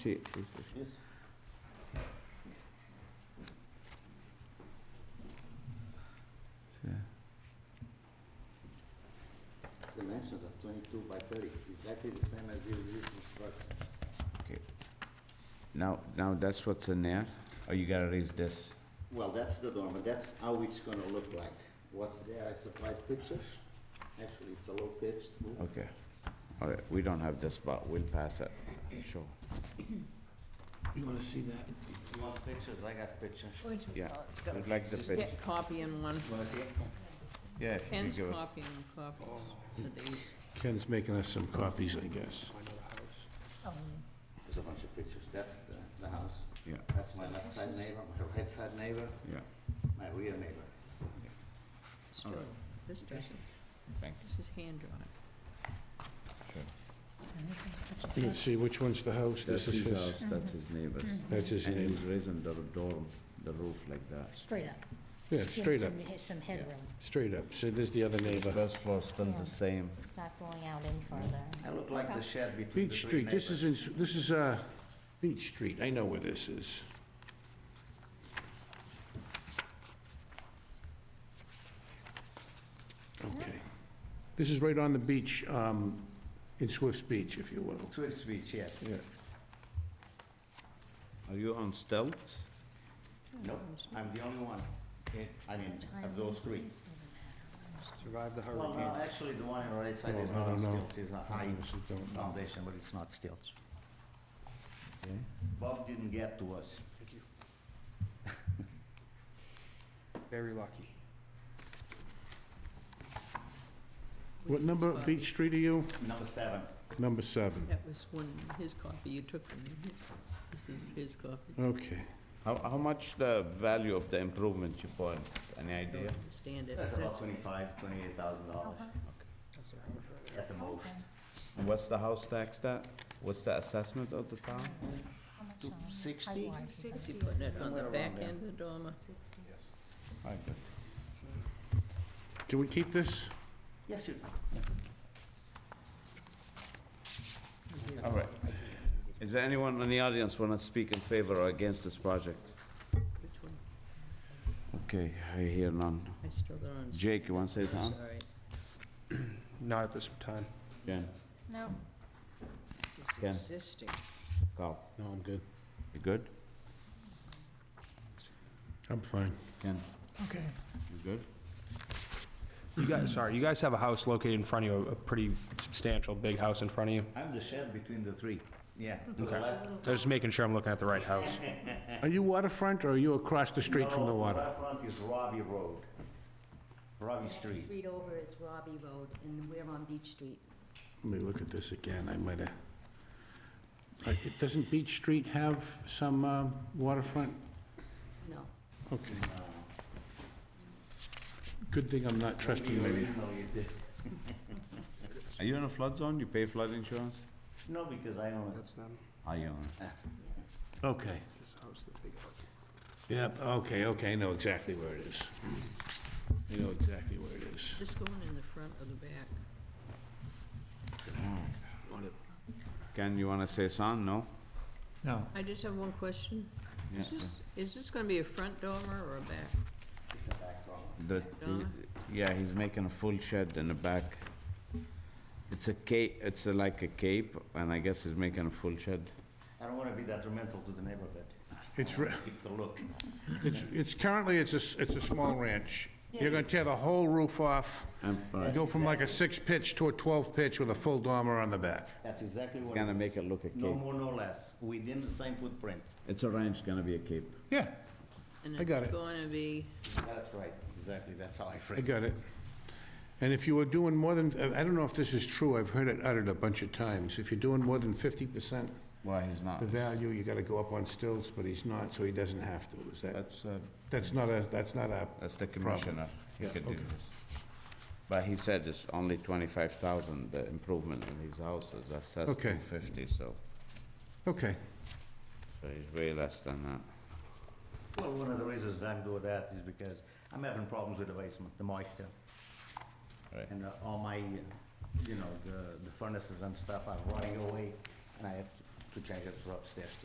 Sí, sí, sí. Yeah. Dimensions are twenty-two by thirty, exactly the same as the original structure. Now, now that's what's in there, or Oh, you gotta raise this? Well, that's the dormer, that's how it's gonna look like. What's there, I supplied pictures. Actually, it's a low pitched roof. Okay. All right, we don't have this, but we'll pass it, sure. You wanna see that? You want pictures? I got pictures. Yeah. It's got I'd like the Just- pitch. copy in one, You wanna see it? Yeah. Ken's copying copies of these. Ken's making us some copies, I guess. There's a bunch of pictures. That's the, the house. Yeah, That's my left side neighbor, my right side neighbor, yeah, my rear neighbor. All right. This doesn't, Thank this is hand drawn. You can see which one's the house, That's this is his his, house, that's his neighbor's. that's his And he's name. raising the dorm, the roof like that. Straight up. Yeah, Just give straight up, some- Some headroom, straight up, so there's the other neighbor. First floor's still the same. it's not going out any further. I look like the shed between the Beach three Street, neighbors. this is, in- this is, uh, Beach Street, I know where this is. Okay. This is right on the beach, um, in Swift's Beach, if you will. Swift Beach, yes. Yeah. Are you on stilts? Nope, I'm the only one, in- I mean, of those three. Survived the Well, hurricane. no, actually, the one on the right side Well, is I not on don't know. stilts, it's a I high honestly don't know. foundation, but it's not stilts. Okay. Bob didn't get to us. Thank you. Very lucky. What Lisa's number of copy. Beach Street are you? Number seven. Number seven. That was one, his copy you took from me. This is his copy. Oh, Okay. How, how much the value of the improvement you put, any I don't idea? understand it. That's but about that's okay. twenty-five, twenty-eight thousand dollars at the most. And what's the house tax that? What's the assessment of the town? Two sixty? Is he putting it on the Somewhere around back there. end of dormer? I bet. Do we keep this? Yes, you, All right. Is there anyone in the audience want to speak in favor or against this project? Which one? Okay, I hear none. I still don't understand. Jake, you want to say something? Sorry. Not at this time. Jen, No, Ken. This is existing. Carl, No, I'm good. you good? I'm fine. Ken, okay. you good? You guys, sorry, you guys have a house located in front of you, a pretty substantial, big house in front of you. I'm the shed between the three. Yeah, to the Okay. left. I was just making sure I'm looking at the right house. Are you waterfront or are you across the street from the No, water? left front is Robbie Road, Robbie Street. Street over is Robbie Road, and we're on Beach Street. Let me look at this again, I might have. Uh, it- Doesn't Beach Street have some um, waterfront? No, Okay. Good thing I'm not trusting Maybe my, originally it did. Are you in a flood zone? You pay flood insurance? No, because I own it. That's them, I own it. okay. this house, the big house. Yep, okay, okay, I know exactly where it is. I know exactly where it is. Just going in the front or the back? Ken, you want to say something? No? No. I just have one question. Yeah. Is this, is this gonna be a front dormer or a back? It's a back problem. The, Donna? yeah, he's making a full shed in the back. It's a cape, it's a- like a cape, and I guess he's making a full shed. I don't wanna be detrimental to the neighborhood. It's, re- Keep the look. it's, it's currently, it's a, s- it's a small ranch. You're gonna tear the whole roof off, Um, all right. go from like a six pitch to a 12 pitch with a full dormer on the back. That's exactly what. it Gonna is. make it look a No cape. more, no less, within the same footprint. It's a ranch, gonna be a cape. Yeah, I got it. And it's gonna be, That's right, exactly, that's how I I phrased it. got it. And if you were doing more than, I I don't know if this is true, I've heard it uttered a bunch of times. If you're doing more than 50% Why, he's not? the value, you gotta go up on stilts, but he's not, so he doesn't have to. Is that, That's, uh, that's not a, that's not a, That's the Problem. commissioner. who Yeah, could do okay. this. But he said it's only twenty-five thousand, the improvement in his house is assessed Okay. two fifty, so, okay. so he's way less than that. Well, one of the reasons I'm doing that is because I'm having problems with the basement, the moisture. Right. And uh, all my, uh, you know, the, the furnaces and stuff are running away, and I have to to change it to upstairs